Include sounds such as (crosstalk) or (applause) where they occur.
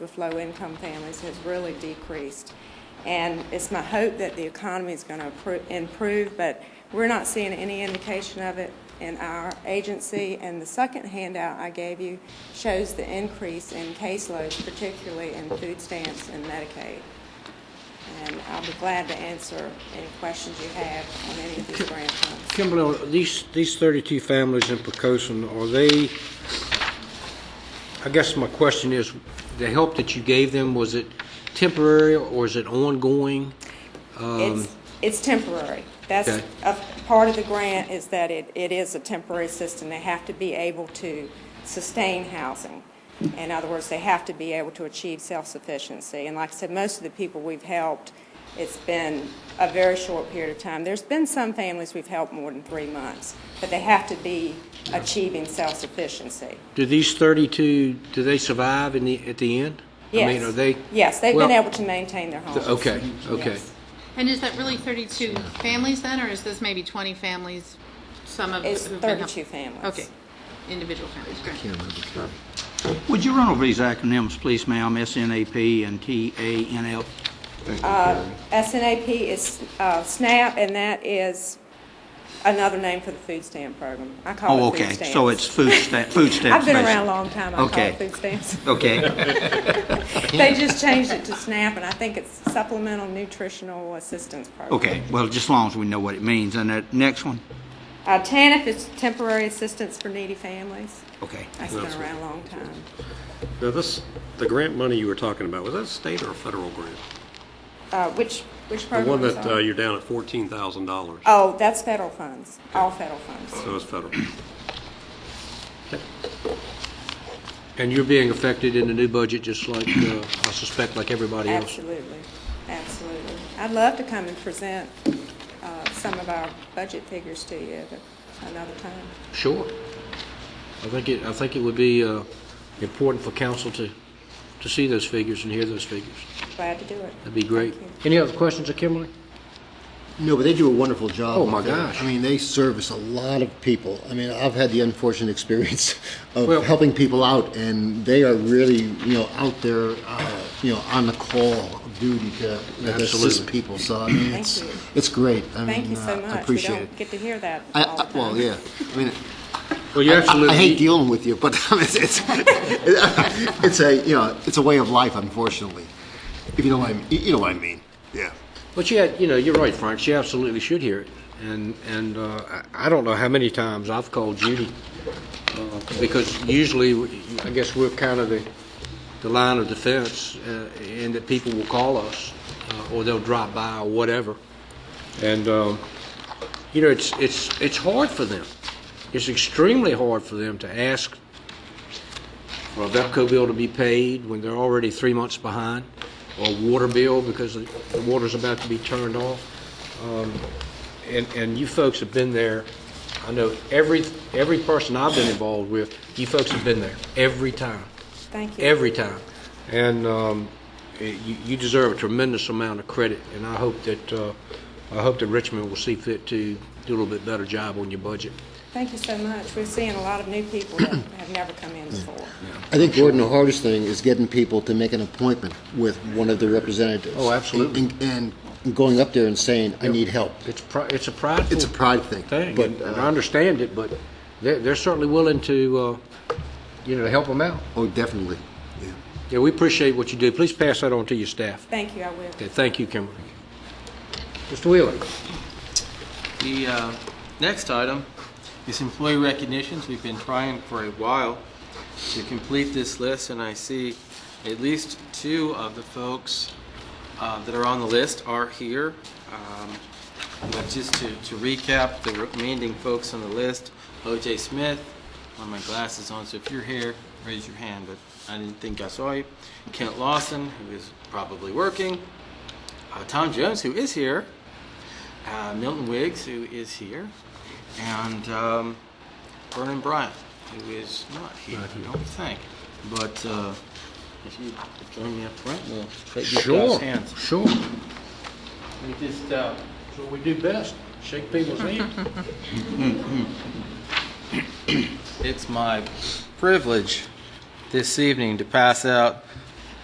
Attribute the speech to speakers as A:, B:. A: with low-income families has really decreased. And it's my hope that the economy is going to improve, but we're not seeing any indication of it in our agency. And the second handout I gave you shows the increase in caseloads, particularly in food stamps and Medicaid. And I'll be glad to answer any questions you have on any of these grant funds.
B: Kimberly, these, these 32 families in Pecosin, are they, I guess my question is, the help that you gave them, was it temporary or is it ongoing?
A: It's, it's temporary. That's,
B: Um, Okay.
A: a part of the grant is that it, it is a temporary system. They have to be able to sustain housing. In other words, they have to be able to achieve self-sufficiency. And like I said, most of the people we've helped, it's been a very short period of time. There's been some families we've helped more than three months, but they have to be achieving self-sufficiency.
B: Do these 32, do they survive in the, at the end? I mean,
A: Yes.
B: are they?
A: Yes, they've been
B: well,
A: able to maintain their homes.
B: Okay, okay.
A: Yes.
C: And is that really 32 families then, or is this maybe 20 families, some of?
A: It's
C: who've been help-
A: 32 families.
C: Okay, individual families, great.
D: Would you run over these acronyms, please, ma'am? SNAP and TANL.
A: Oh, SNAP is uh, SNAP, and that is another name for the food stamp program. I
D: Oh,
A: call it food
D: okay,
A: stamps.
D: so it's food sta- food
A: (laughs)
D: stamps.
A: I've been around
D: basically.
A: a long time, I call
D: Okay.
A: it food
D: (laughs)
A: stamps.
D: Okay,
A: They just changed it to SNAP, and I think it's Supplemental Nutritional Assistance Program.
D: okay, well, just as long as we know what it means. And the next one?
A: Uh, TANF is Temporary Assistance for Needy Families.
D: Okay.
A: That's been around a long time.
E: Now, this, the grant money you were talking about, was that a state or a federal grant?
A: Uh, Which, which
E: The
A: program?
E: one
A: was
E: that uh, you're down at fourteen thousand dollars,
A: Oh, that's federal funds, all federal funds.
E: so it's federal.
B: And you're being affected in the new budget, just like, uh, I suspect, like everybody else?
A: Absolutely, absolutely. I'd love to come and present uh, some of our budget figures to you but another time.
B: Sure. I think it, I think it would be uh, important for council to, to see those figures and hear those figures.
A: Glad to do it.
B: That'd be great.
A: Thank you.
B: Any other questions of Kimberly?
F: No, but they do a wonderful job.
B: Oh,
F: up
B: my
F: there.
B: gosh.
F: I mean, they service a lot of people. I mean, I've had the unfortunate (laughs) experience of
B: Well-
F: helping people out, and they are really, you know, out there, uh, you know, on the call of duty to, you know, to assist
B: Absolutely.
F: people. So I mean, it's
A: you.
F: it's great. I
A: Thank
F: mean,
A: you so
F: uh,
A: much.
F: I appreciate
A: We
F: it.
A: don't get to hear that
F: I,
A: all the
F: I,
A: time.
F: well, yeah. I mean,
B: Well, you
F: I, I hate
B: absolutely,
F: dealing with you, but (laughs) I mean, it's it's, it's a you know it's a way of life, unfortunately. If you know what I mean, you know what I mean. Yeah.
B: but you had, you know, you're right, Frank, she absolutely should hear it. And, and uh, I I don't know how many times I've called Judy, uh, because usually, I guess we're kind of the, the line of defense, uh, in that people will call us, uh, or they'll drop by or whatever. And, um, you know, it's, it's, it's hard for them. It's extremely hard for them to ask for a VEPCO bill to be paid when they're already three months behind, or a water bill because the the water's about to be turned off. Um, And, and you folks have been there, I know every, every person I've been involved with, you folks have been there, every time.
A: Thank you.
B: Every time. And um, eh, you you deserve a tremendous amount of credit, and I hope that, uh, I hope that Richmond will see fit to do a little bit better job on your budget.
A: Thank you so much. We're seeing a lot of new people that have never come in before.
F: I think, Gordon, the hardest thing is getting people to make an appointment with one of their representatives.
B: Oh, absolutely.
F: And- And and going up there and saying, I need help.
B: It's pri- it's a prideful.
F: It's a pride thing,
B: Thing,
F: but,
B: and and
F: uh,
B: I understand it, but they're, they're certainly willing to, uh, you know, to help them out.
F: Oh, definitely. Yeah.
B: Yeah, we appreciate what you do. Please pass that on to your staff.
A: Thank you, I will.
B: Okay, thank you, Kimberly. Mr. Wheeler?
G: The uh, next item is employee recognitions. We've been trying for a while to complete this list, and I see at least two of the folks uh, that are on the list are here. Um, But just to to recap, the remaining folks on the list, O.J. Smith, one of my glasses on, so if you're here, raise your hand, but I didn't think I saw you. Kent Lawson, who is probably working. Uh, Tom Jones, who is here uh, Milton Wiggs, who is here, and um, Vernon Bryant, who is not here, I don't think. But uh, if you join me up front, we'll shake these guys' hands.
B: Sure.
G: We just, uh,
B: That's what we do best, shake people's hands.
G: it's my privilege this evening to pass out